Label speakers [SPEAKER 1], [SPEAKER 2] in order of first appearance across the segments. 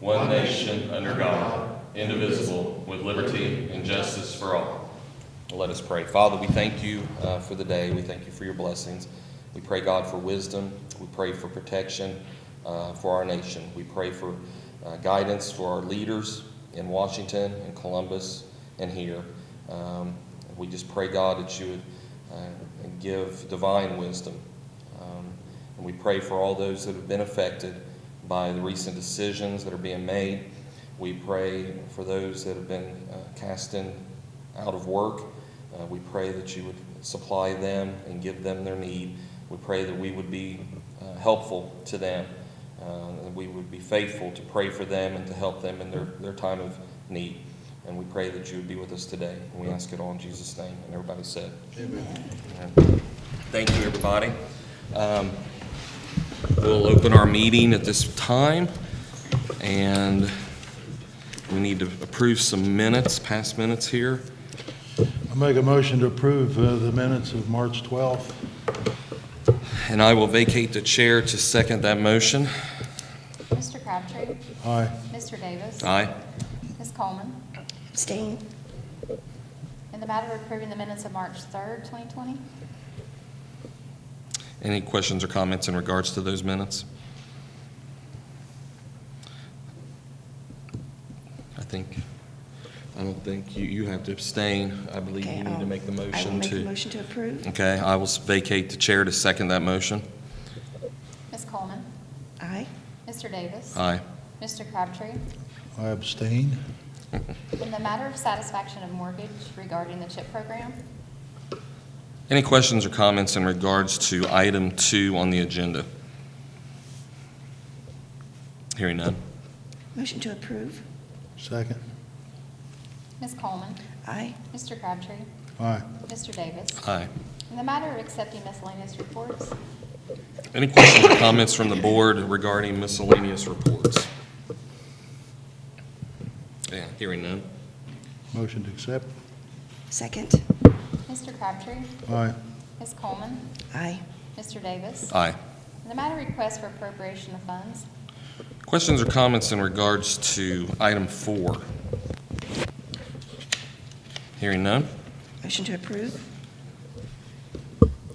[SPEAKER 1] one nation, under God, indivisible, with liberty and justice for all. Let us pray. Father, we thank you uh, for the day. We thank you for your blessings. We pray, God, for wisdom. We pray for protection uh, for our nation. We pray for uh, guidance for our leaders in Washington, in Columbus, and here. Um, we just pray, God, that you would uh, give divine wisdom. Um, and we pray for all those that have been affected by the recent decisions that are being made. We pray for those that have been uh, cast in out of work. Uh, we pray that you would supply them and give them their need. We pray that we would be uh, helpful to them, uh, that we would be faithful to pray for them and to help them in their, their time of need. And we pray that you would be with us today. And we ask it all in Jesus' name. And everybody said, Amen. Thank you, everybody. Um, We'll open our meeting at this time, and we need to approve some minutes, past minutes here.
[SPEAKER 2] I make a motion to approve uh, the minutes of March 12th.
[SPEAKER 1] And I will vacate the chair to second that motion.
[SPEAKER 3] Mr. Crabtree,
[SPEAKER 2] Aye.
[SPEAKER 3] Mr. Davis.
[SPEAKER 1] Aye.
[SPEAKER 3] Ms. Coleman,
[SPEAKER 4] Abstain.
[SPEAKER 3] in the matter of approving the minutes of March 3rd, 2020.
[SPEAKER 1] Any questions or comments in regards to those minutes? I think, I don't think, you, you have to abstain. I believe
[SPEAKER 4] Okay,
[SPEAKER 1] you need to
[SPEAKER 4] I'll-
[SPEAKER 1] make the motion to.
[SPEAKER 4] I will make a motion to approve.
[SPEAKER 1] Okay, I will s- vacate the chair to second that motion.
[SPEAKER 3] Ms. Coleman,
[SPEAKER 4] Aye.
[SPEAKER 3] Mr. Davis.
[SPEAKER 1] Aye.
[SPEAKER 3] Mr. Crabtree,
[SPEAKER 2] I abstain.
[SPEAKER 3] in the matter of satisfaction of mortgage regarding the CHIP program.
[SPEAKER 1] Any questions or comments in regards to item two on the agenda? Hearing none.
[SPEAKER 4] Motion to approve.
[SPEAKER 2] Second.
[SPEAKER 3] Ms. Coleman,
[SPEAKER 4] Aye.
[SPEAKER 3] Mr. Crabtree,
[SPEAKER 2] Aye.
[SPEAKER 3] Mr. Davis.
[SPEAKER 1] Aye.
[SPEAKER 3] In the matter of accepting miscellaneous reports,
[SPEAKER 1] Any questions or comments from the board regarding miscellaneous reports? Yeah, hearing none.
[SPEAKER 2] Motion to accept.
[SPEAKER 4] Second.
[SPEAKER 3] Mr. Crabtree,
[SPEAKER 2] Aye.
[SPEAKER 3] Ms. Coleman,
[SPEAKER 4] Aye.
[SPEAKER 3] Mr. Davis.
[SPEAKER 1] Aye.
[SPEAKER 3] In the matter of request for appropriation of funds,
[SPEAKER 1] Questions or comments in regards to item four? Hearing none.
[SPEAKER 4] Motion to approve.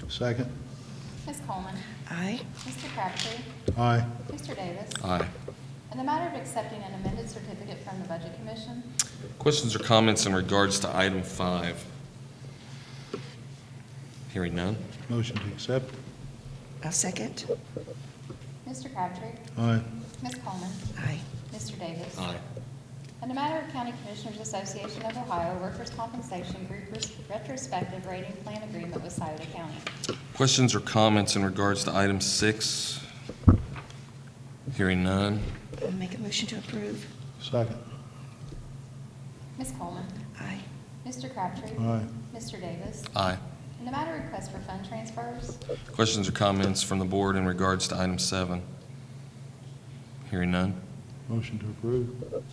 [SPEAKER 2] Second.
[SPEAKER 3] Ms. Coleman,
[SPEAKER 4] Aye.
[SPEAKER 3] Mr. Crabtree,
[SPEAKER 2] Aye.
[SPEAKER 3] Mr. Davis.
[SPEAKER 1] Aye.
[SPEAKER 3] In the matter of accepting an amended certificate from the Budget Commission,
[SPEAKER 1] Questions or comments in regards to item five? Hearing none.
[SPEAKER 2] Motion to accept.
[SPEAKER 4] I'll second.
[SPEAKER 3] Mr. Crabtree,
[SPEAKER 2] Aye.
[SPEAKER 3] Ms. Coleman,
[SPEAKER 4] Aye.
[SPEAKER 3] Mr. Davis. In the matter of County Commissioners Association of Ohio Workers' Compensation Group Res- Retrospective Rating Plan Agreement with Souda County.
[SPEAKER 1] Questions or comments in regards to item six? Hearing none.
[SPEAKER 4] I'll make a motion to approve.
[SPEAKER 2] Second.
[SPEAKER 3] Ms. Coleman,
[SPEAKER 4] Aye.
[SPEAKER 3] Mr. Crabtree,
[SPEAKER 2] Aye.
[SPEAKER 3] Mr. Davis.
[SPEAKER 1] Aye.
[SPEAKER 3] In the matter of request for fund transfers,
[SPEAKER 1] Questions or comments from the board in regards to item seven? Hearing none.
[SPEAKER 2] Motion to approve.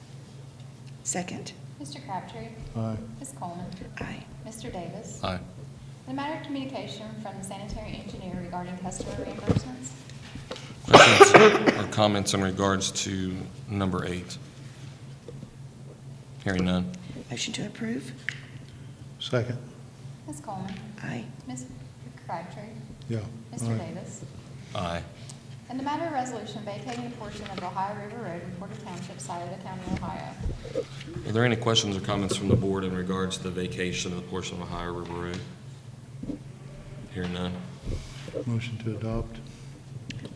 [SPEAKER 4] Second.
[SPEAKER 3] Mr. Crabtree,
[SPEAKER 2] Aye.
[SPEAKER 3] Ms. Coleman,
[SPEAKER 4] Aye.
[SPEAKER 3] Mr. Davis.
[SPEAKER 1] Aye.
[SPEAKER 3] In the matter of communication from the sanitary engineer regarding customer reimbursements,
[SPEAKER 1] Questions or comments in regards to number eight? Hearing none.
[SPEAKER 4] Motion to approve.
[SPEAKER 2] Second.
[SPEAKER 3] Ms. Coleman,
[SPEAKER 4] Aye.
[SPEAKER 3] Ms. Crabtree,
[SPEAKER 2] Yeah.
[SPEAKER 3] Mr.
[SPEAKER 2] Aye.
[SPEAKER 3] Davis.
[SPEAKER 1] Aye.
[SPEAKER 3] In the matter of resolution vacating a portion of Ohio River Road in Porter Township, Scioto County, Ohio.
[SPEAKER 1] Are there any questions or comments from the board in regards to the vacation of the portion of Ohio River Road? Hearing none.
[SPEAKER 2] Motion to adopt.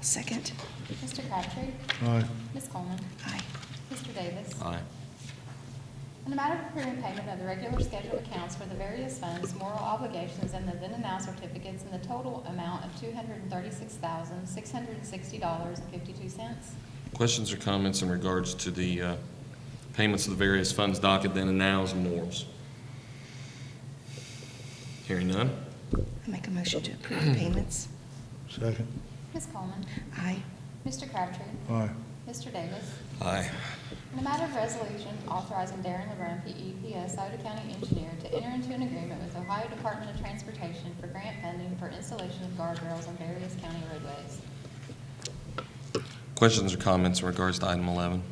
[SPEAKER 4] Second.
[SPEAKER 3] Mr. Crabtree,
[SPEAKER 2] Aye.
[SPEAKER 3] Ms. Coleman,
[SPEAKER 4] Aye.
[SPEAKER 3] Mr. Davis.
[SPEAKER 1] Aye.
[SPEAKER 3] In the matter of approving payment of the regular scheduled accounts for the various funds, moral obligations, and the then and now certificates in the total amount of two hundred and thirty-six thousand, six hundred and sixty dollars and fifty-two cents.
[SPEAKER 1] Questions or comments in regards to the uh, payments of the various funds docket then and nows and mores? Hearing none.
[SPEAKER 4] I'll make a motion to approve the payments.
[SPEAKER 2] Second.
[SPEAKER 3] Ms. Coleman,
[SPEAKER 4] Aye.
[SPEAKER 3] Mr. Crabtree,
[SPEAKER 2] Aye.
[SPEAKER 3] Mr. Davis.
[SPEAKER 1] Aye.
[SPEAKER 3] In the matter of resolution authorizing Darren LeBrun, E PEPS, Sauter County Engineer, to enter into an agreement with Ohio Department of Transportation for grant funding for installation of guardrails on various county roadways.
[SPEAKER 1] Questions or comments in regards to item 11?